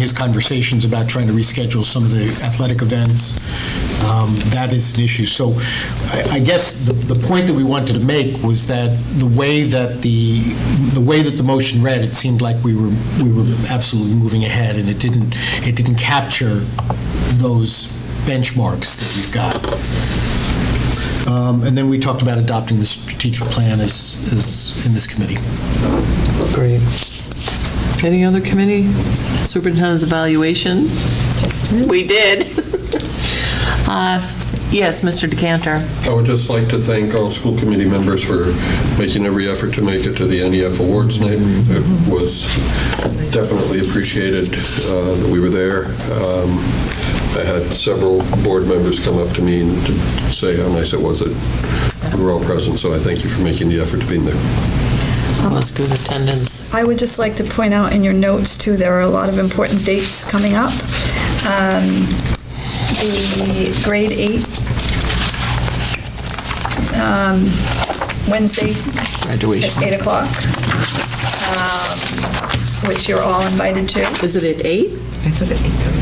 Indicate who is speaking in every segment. Speaker 1: his conversations about trying to reschedule some of the athletic events. Um, That is an issue. So I I guess the the point that we wanted to make was that the way that the, the way that the motion read, it seemed like we were, we were absolutely moving ahead, and it didn't, it didn't capture those benchmarks that we've got. Um, And then we talked about adopting the strategic plan as, as in this committee.
Speaker 2: Great. Any other committee? Superintendent's evaluation? We did. Uh, Yes, Mr. Decanter.
Speaker 3: I would just like to thank all school committee members for making every effort to make it to the NEF Awards night. It was definitely appreciated uh, that we were there. Um, I had several board members come up to me and to say how nice it was that we were all present, so I thank you for making the effort to be there.
Speaker 2: That's good attendance.
Speaker 4: I would just like to point out in your notes, too, there are a lot of important dates coming up. Um, The grade eight, um, Wednesday, at
Speaker 2: Graduation.
Speaker 4: 8 o'clock, um, which you're all invited to.
Speaker 2: Is it at 8?
Speaker 5: It's at 8:30.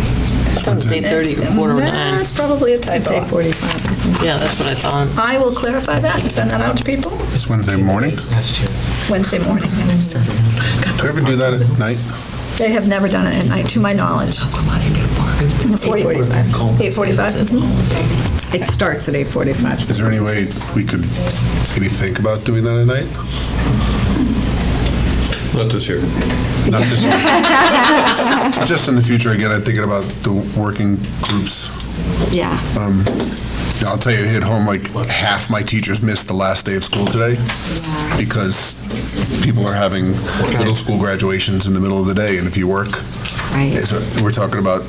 Speaker 2: It was 8:30 or quarter to 9.
Speaker 4: That's probably a
Speaker 5: It's
Speaker 4: typo.
Speaker 5: 8:45.
Speaker 2: Yeah, that's what I thought.
Speaker 4: I will clarify that and send that out to people
Speaker 6: It's Wednesday morning. Do
Speaker 4: Wednesday morning.
Speaker 6: we ever do that at night?
Speaker 4: They have never done it at night, to my knowledge. In the 40
Speaker 5: 8:45.
Speaker 4: 8:45. mhm.
Speaker 5: It starts at 8:45.
Speaker 6: Is there any way we could maybe think about doing that at night?
Speaker 3: Not this year.
Speaker 6: Not just, just in the future, again, I'm thinking about the working groups.
Speaker 4: Yeah.
Speaker 6: Um, I'll tell you, at home, like, half my teachers missed the last day of school today because people are having middle school graduations in the middle of the day, and if you work,
Speaker 5: Right.
Speaker 6: so we're talking about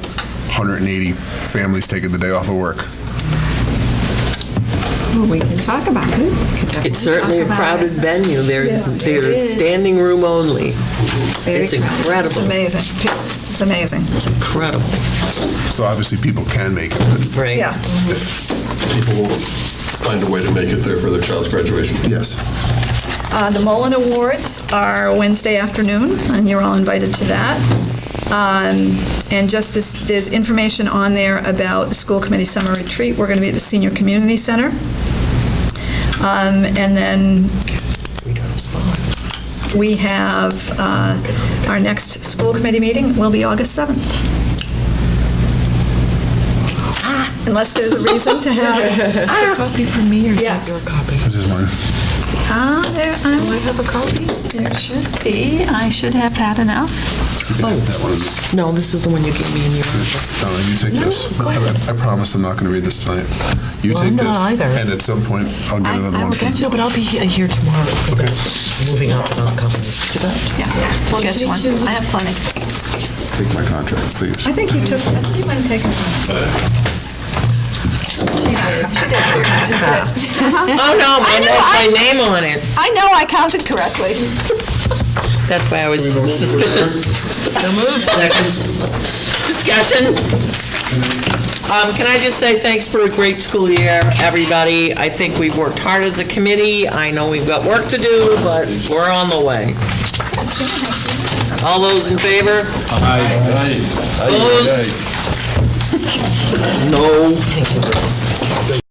Speaker 6: 180 families taking the day off of work.
Speaker 5: Well, We can talk about it. We can definitely
Speaker 2: It's certainly a
Speaker 5: talk about
Speaker 2: crowded
Speaker 5: it.
Speaker 2: venue. There's,
Speaker 5: it
Speaker 2: there's
Speaker 5: is.
Speaker 2: standing room only.
Speaker 5: Very
Speaker 2: It's incredible,
Speaker 4: Amazing. It's amazing.
Speaker 2: incredible,
Speaker 6: So obviously, people can make it, but
Speaker 2: right?
Speaker 4: Yeah.
Speaker 3: People will find a way to make it there for their child's graduation.
Speaker 6: yes.
Speaker 4: Uh, The Mullen Awards are Wednesday afternoon, and you're all invited to that. Um, And just this, there's information on there about the school committee summer retreat. We're going to be at the Senior Community Center. Um, And then we have, uh, our next school committee meeting will be August 7th. Ah, Unless there's a reason to have,
Speaker 5: Is there a copy for me or is that
Speaker 4: Yes.
Speaker 5: your copy?
Speaker 6: This is mine.
Speaker 4: ah, there,
Speaker 5: Do
Speaker 4: I'm-
Speaker 5: I have a copy?
Speaker 4: there should be, I should have had enough.
Speaker 6: That one is-
Speaker 2: No, this is the one you gave me in your office.
Speaker 6: Donna, you take this. I I promise I'm not going to read this tonight. You
Speaker 5: Well,
Speaker 6: take
Speaker 5: I'm not
Speaker 6: this,
Speaker 5: either.
Speaker 6: and at some point, I'll get another one. from you.
Speaker 5: No, but I'll be he- here tomorrow.
Speaker 6: Okay.
Speaker 7: Moving up
Speaker 2: Oh,
Speaker 7: and I'll come and sit down.
Speaker 4: Yeah, we'll get you one. I have plenty.
Speaker 6: Take my contract, please.
Speaker 4: I think you took, I think you might have taken one.
Speaker 2: Oh, no, mine has my name on it.
Speaker 4: I know I counted correctly.
Speaker 2: That's why I was suspicious. So moved. Second. Discussion. Um, Can I just say thanks for a great school year, everybody? I think we've worked hard as a committee. I know we've got work to do, but we're on the way. All those in favor? Opposed? No.